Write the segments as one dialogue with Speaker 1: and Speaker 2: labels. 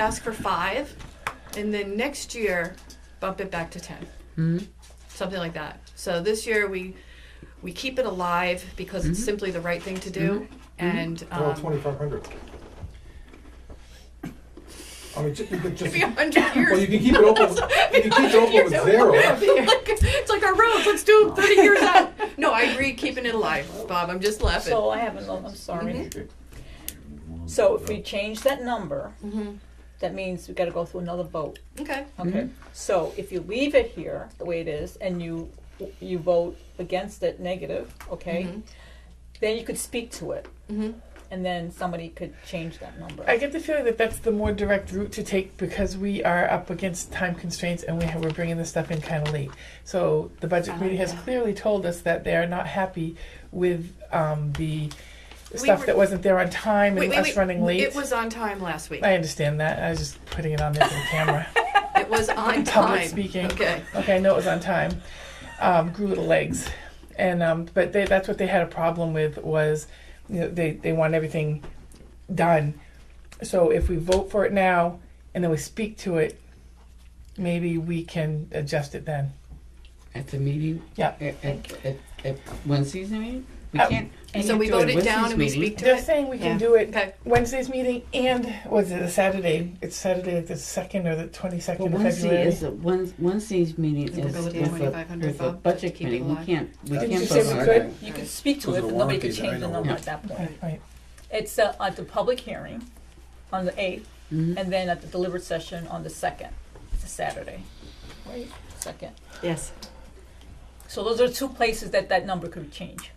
Speaker 1: ask for five, and then next year bump it back to 10
Speaker 2: Hmm?
Speaker 1: something like that. So this year we we keep it alive because
Speaker 2: Mm-hmm.
Speaker 1: it's simply the right thing to do, and
Speaker 3: Well,
Speaker 1: um,
Speaker 3: twenty-five hundred. I mean, ju- you could just,
Speaker 1: maybe a hundred years.
Speaker 3: well, you can keep it open, you can keep it open with zero.
Speaker 1: Like, it's like our roads. Let's do it 30 years out. No, I agree. Keeping it alive, Bob. I'm just laughing.
Speaker 4: So I have another, I'm sorry. So if we change that number, that means we gotta go through another vote.
Speaker 1: Mm-hmm. okay.
Speaker 4: Okay, so if you leave it here, the way it is, and you, you vote against it negative, okay? Then you could speak to it. And then somebody could change that number.
Speaker 2: I get the feeling that that's the more direct route to take because we are up against time constraints and we have, we're bringing this stuff in kind of late. So the budget committee has clearly told us that they are not happy with um, the stuff
Speaker 1: were-
Speaker 2: that wasn't there on time and
Speaker 1: Wait, wait,
Speaker 2: us
Speaker 1: wait.
Speaker 2: running late.
Speaker 1: It was on time last week.
Speaker 2: I understand that. I was just putting it on there for the camera.
Speaker 1: It was on
Speaker 2: Public
Speaker 1: time.
Speaker 2: speaking.
Speaker 1: Okay.
Speaker 2: Okay, I know it was on time. Um, grew little legs, and um, but they, that's what they had a problem with was, you know, they they want everything done. So if we vote for it now and then we speak to it, maybe we can adjust it then.
Speaker 5: At the meeting?
Speaker 2: Yeah.
Speaker 5: At, at, at, at Wednesday's meeting? We
Speaker 2: Um,
Speaker 5: can't.
Speaker 1: And Oh, so we
Speaker 5: can't do
Speaker 1: vote it
Speaker 5: at
Speaker 1: down and we
Speaker 5: Wednesday's
Speaker 1: speak to
Speaker 2: They're
Speaker 1: it.
Speaker 2: saying we can
Speaker 5: Yeah.
Speaker 2: do it
Speaker 1: Okay.
Speaker 2: Wednesday's meeting and was it a Saturday? It's Saturday, like the second or the twenty
Speaker 5: Well,
Speaker 2: second of
Speaker 5: Wednesday
Speaker 2: February.
Speaker 5: is, a- Wed- Wednesday's meeting
Speaker 1: We'll
Speaker 5: is
Speaker 1: go with
Speaker 5: with
Speaker 1: the
Speaker 5: the,
Speaker 1: 2500
Speaker 5: with the
Speaker 1: vote, keep
Speaker 5: budget
Speaker 1: it
Speaker 5: committee. We
Speaker 1: alive.
Speaker 5: can't, we
Speaker 3: Didn't
Speaker 2: you
Speaker 5: can't
Speaker 2: say
Speaker 5: vote
Speaker 2: we
Speaker 5: on
Speaker 2: could?
Speaker 5: it.
Speaker 4: You could speak to
Speaker 3: Those
Speaker 4: it,
Speaker 3: are
Speaker 4: but nobody could
Speaker 3: warranties, I
Speaker 4: change the
Speaker 3: know.
Speaker 4: number
Speaker 3: Yeah.
Speaker 4: at that point.
Speaker 2: Right, right.
Speaker 4: It's uh, at the public hearing on the eighth,
Speaker 5: Mm-hmm.
Speaker 4: and then at the delivered session on the second. It's a Saturday, right? Second.
Speaker 1: Yes.
Speaker 4: So those are two places that that number could change.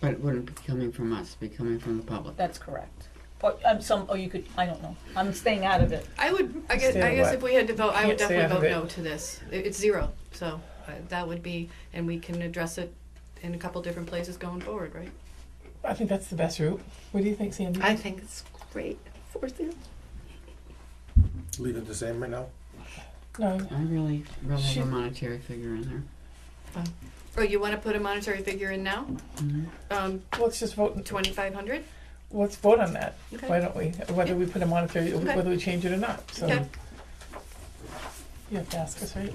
Speaker 5: But it wouldn't be coming from us, it'd be coming from the public.
Speaker 4: That's correct. Or um, some, or you could. I don't know. I'm staying out of it.
Speaker 1: I would. I guess. I
Speaker 2: Understand
Speaker 1: guess
Speaker 2: what?
Speaker 1: if we had to vote, I would
Speaker 2: Can't say
Speaker 1: definitely vote
Speaker 2: out of
Speaker 1: no to this. It- It's zero. So uh, that would be, and we can address it in a couple different places going forward, right?
Speaker 2: I think that's the best route. What do you think, Sandy?
Speaker 6: I think it's great for them.
Speaker 3: Leave it the same right now?
Speaker 2: no,
Speaker 5: I really, really
Speaker 2: She-
Speaker 5: have a monetary figure in there.
Speaker 1: Or Oh, you want to put a monetary figure in now?
Speaker 5: Mm-hmm.
Speaker 1: Um,
Speaker 2: let's just vote.
Speaker 1: twenty-five hundred?
Speaker 2: Let's vote on that.
Speaker 1: Okay.
Speaker 2: Why don't we? Whether we put a monetary,
Speaker 1: Okay.
Speaker 2: whether we change it or not. So
Speaker 1: Okay.
Speaker 2: you have to ask us, right?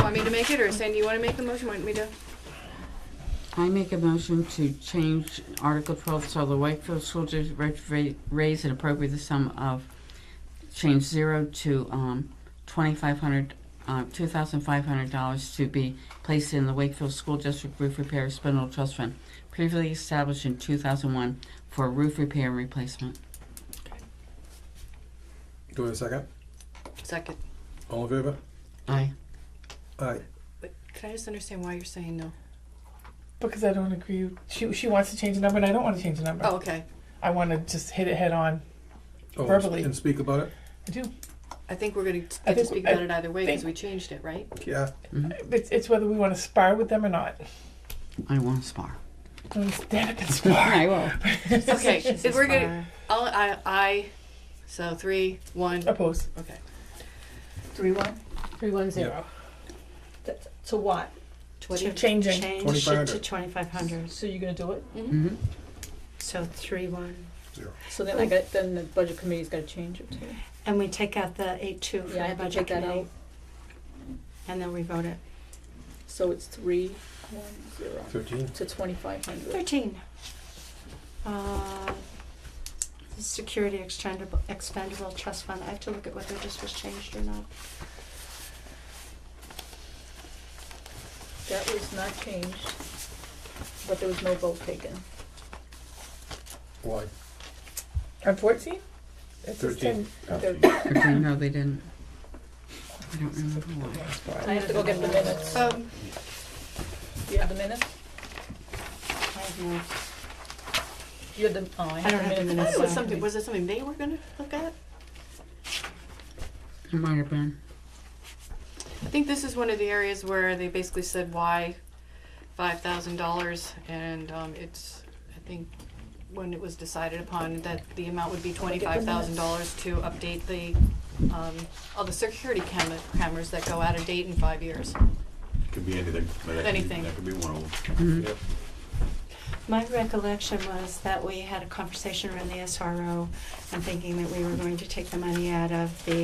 Speaker 1: Want me to make it, or Sandy, you want to make the motion? Want me to?
Speaker 5: I make a motion to change Article twelve, so the Wakefield School District ra- ra- raise and appropriate the sum of, change zero to, um, twenty-five hundred, uh, two thousand five hundred dollars to be placed in the Wakefield School District Roof Repair Spindle Trust Fund, previously established in two thousand one for roof repair and replacement.
Speaker 3: Do we have a second?
Speaker 1: Second.
Speaker 3: All in favor?
Speaker 5: Aye.
Speaker 3: Aye.
Speaker 1: But can I just understand why you're saying no?
Speaker 2: Because I don't agree. She she wants to change the number, and I don't want to change the number.
Speaker 1: Oh, okay.
Speaker 2: I want to just hit it head on.
Speaker 3: Oh,
Speaker 2: Verbally.
Speaker 3: And speak about it?
Speaker 2: I do.
Speaker 1: I think we're going to get
Speaker 2: I
Speaker 1: to
Speaker 2: think-
Speaker 1: speak
Speaker 2: I
Speaker 1: about it either way because
Speaker 2: think-
Speaker 1: we changed it, right?
Speaker 3: Yeah.
Speaker 2: It's, it's whether we want to spar with them or not.
Speaker 5: I want to spar.
Speaker 2: And Stand up and spar.
Speaker 5: I will.
Speaker 1: Okay. If we're gonna, I'll, I, I, so three, one.
Speaker 2: Oppose.
Speaker 1: Okay.
Speaker 4: Three one.
Speaker 6: Three one
Speaker 3: zero.
Speaker 4: To what?
Speaker 6: To
Speaker 1: Twenty.
Speaker 2: Changing.
Speaker 6: change it
Speaker 3: 2500.
Speaker 6: to twenty-five hundred,
Speaker 4: So you're gonna do it?
Speaker 1: Mm-hmm.
Speaker 5: Mm-hmm.
Speaker 6: so three one.
Speaker 4: So then I got. Then the budget committee's got to change it too.
Speaker 6: And we take out the eight two for
Speaker 4: Yeah, I
Speaker 6: the
Speaker 4: can
Speaker 6: budget
Speaker 4: take that
Speaker 6: committee.
Speaker 4: out.
Speaker 6: And then we vote it.
Speaker 4: So it's three one zero
Speaker 3: Thirteen.
Speaker 4: to twenty five hundred.
Speaker 6: Thirteen. Uh, the Security expendable, expendable trust fund. I have to look at whether this was changed or not.
Speaker 4: That was not changed, but there was no vote taken.
Speaker 3: Why?
Speaker 2: On fourteen. It's just
Speaker 3: Thirteen.
Speaker 2: 10.
Speaker 4: There-
Speaker 5: Okay, no, they didn't. I don't remember why.
Speaker 2: Spar.
Speaker 4: I have to go get the minutes.
Speaker 1: Um,
Speaker 4: Do you have the minutes?
Speaker 6: I have no,
Speaker 4: You have the, oh, I
Speaker 6: I don't
Speaker 4: have the minutes.
Speaker 1: I thought it was
Speaker 6: so-
Speaker 1: something. Was it something they were gonna look at?
Speaker 5: It might have been.
Speaker 1: I think this is one of the areas where they basically said why five thousand dollars, and um, it's I think when it was decided upon that the amount would be twenty
Speaker 4: the
Speaker 1: five thousand dollars to update the um, all the security cam- cameras that go out of date in five years.
Speaker 7: Could be anything. but that could be-
Speaker 1: Anything.
Speaker 5: Mm-hmm.
Speaker 7: That could be one of them.
Speaker 3: Yep.
Speaker 6: My recollection was that we had a conversation around the SRO and thinking that we were going to take the money out of the